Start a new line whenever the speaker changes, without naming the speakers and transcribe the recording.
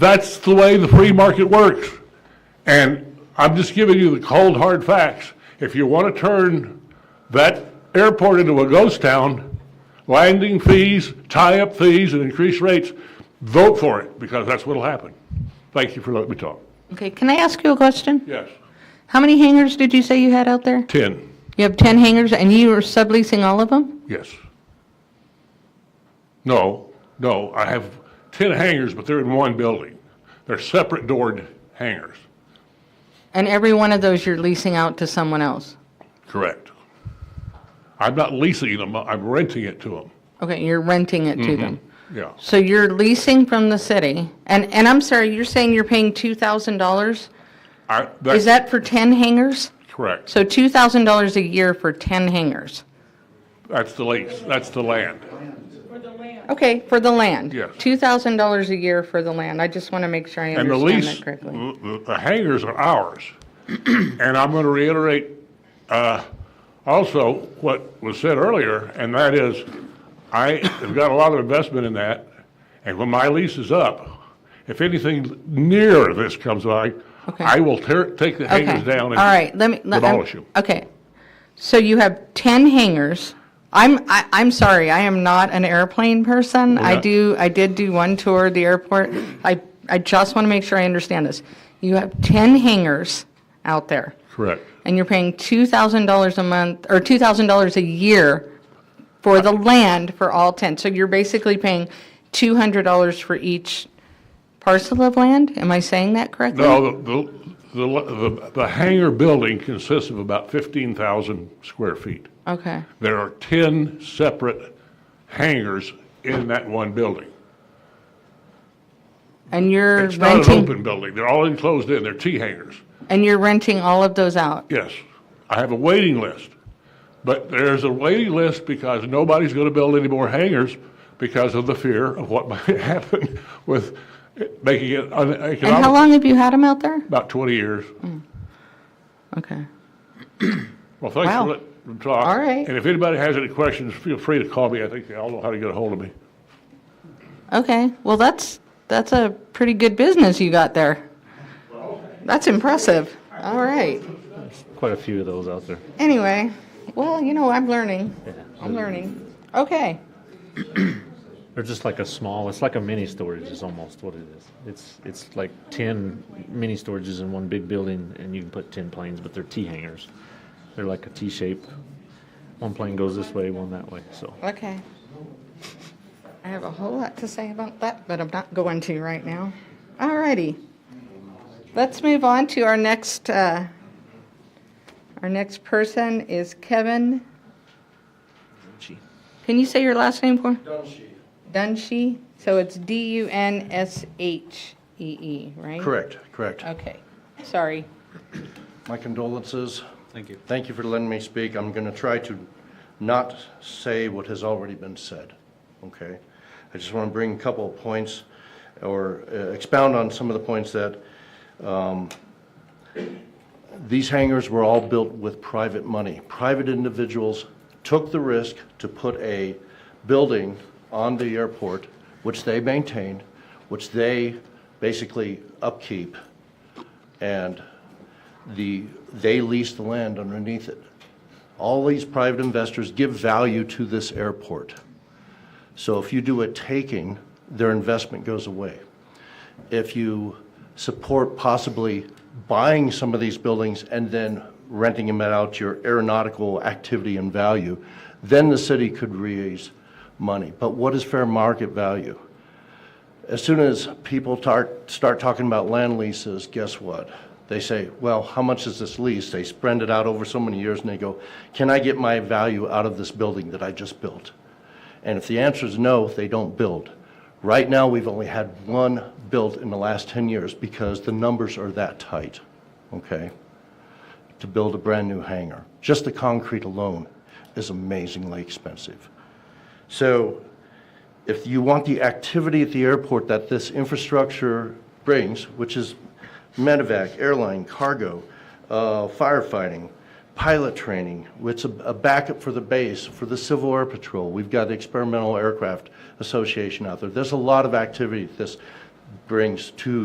That's the way the free market works. And I'm just giving you the cold, hard facts. If you want to turn that airport into a ghost town, landing fees, tie-up fees, and increased rates, vote for it, because that's what'll happen. Thank you for letting me talk.
Okay, can I ask you a question?
Yes,
How many hangars did you say you had out there?
10,
You have 10 hangars and you are subleasing all of them?
yes. No, no, I have 10 hangars, but they're in one building. They're separate doored hangars,
And every one of those you're leasing out to someone else?
correct. I'm not leasing them, I'm renting it to them,
Okay, you're renting it to
Mm-hmm.
them.
yeah.
So you're leasing from the city? And, and I'm sorry, you're saying you're paying $2,000?
I-
Is that for 10 hangars?
Correct.
So $2,000 a year for 10 hangars?
That's the lease, that's the land.
Okay, for the land?
Yes.
$2,000 a year for the land? I just want to make sure I
And the
understand
lease, Mm-hmm.
that correctly.
the the- the hangars are ours. And I'm going to reiterate uh, also what was said earlier, and that is, I have got a lot of investment in that, and when my lease is up, if anything near this comes by,
Okay.
I will tear, take the
Okay.
hangars down
All right, let me.
and
let- I'm-
demolish them.
Okay. So you have 10 hangars. I'm, I, I'm sorry, I am not an airplane person. I
yeah.
do, I did do one tour of the airport. I, I just want to make sure I understand this. You have 10 hangars out there,
Correct.
and you're paying $2,000 a month, or $2,000 a year for the land for all 10. So you're basically paying $200 for each parcel of land? Am I saying that correctly?
No, the- the, the, the hangar building consists of about 15,000 square feet.
Okay.
There are 10 separate hangars in that one building.
And you're
It's not an
renting,
open building, they're all enclosed in, they're T hangars.
and you're renting all of those out?
Yes, I have a waiting list, but there's a waiting list because nobody's going to build any more hangars because of the fear of what might happen with it- making it
And how
uneconomic.
long have you had them out there?
About 20 years.
Okay.
Well, thanks
Wow.
for letting me talk.
All right.
And if anybody has any questions, feel free to call me, I think they all know how to get a hold of me.
Okay, well, that's, that's a pretty good business you got there. That's impressive. All right.
Quite a few of those out there.
Anyway, well, you know, I'm learning. I'm learning. Okay.
They're just like a small. It's like a mini storage. Is almost what it is. It's it's like ten mini storages in one big building, and you can put ten planes, but they're T hangers. They're like a T shape. One plane goes this way, one that way. So
Okay. I have a whole lot to say about that, but I'm not going to right now. All righty. Let's move on to our next, uh, our next person is Kevin. Can you say your last name for? Dunshee. Dunshee? So it's D-U-N-S-H-E-E, E right?
Correct, correct.
Okay. Sorry.
My condolences. Thank you. Thank you for letting me speak. I'm going to try to not say what has already been said, okay? I just want to bring a couple of points or uh, expound on some of the points that um, these hangars were all built with private money. Private individuals took the risk to put a building on the airport, which they maintained, which they basically upkeep, and the, they lease the land underneath it. All these private investors give value to this airport. So if you do a taking, their investment goes away. If you support possibly buying some of these buildings and then renting them out to your aeronautical activity and value, then the city could raise money. But what is fair market value? as soon as people start, start talking about land leases, guess what? They say, well, how much is this lease? They spread it out over so many years and they go, can I get my value out of this building that I just built? And if the answer is no, they don't build. Right now, we've only had one built in the last 10 years because the numbers are that tight, okay? To build a brand-new hangar, just the concrete alone is amazingly expensive. So if you want the activity at the airport that this infrastructure brings, which is medevac, airline, cargo, uh, firefighting, pilot training, which is a a backup for the base, for the Civil Air Patrol. We've got the Experimental Aircraft Association out there. There's a lot of activity that this brings to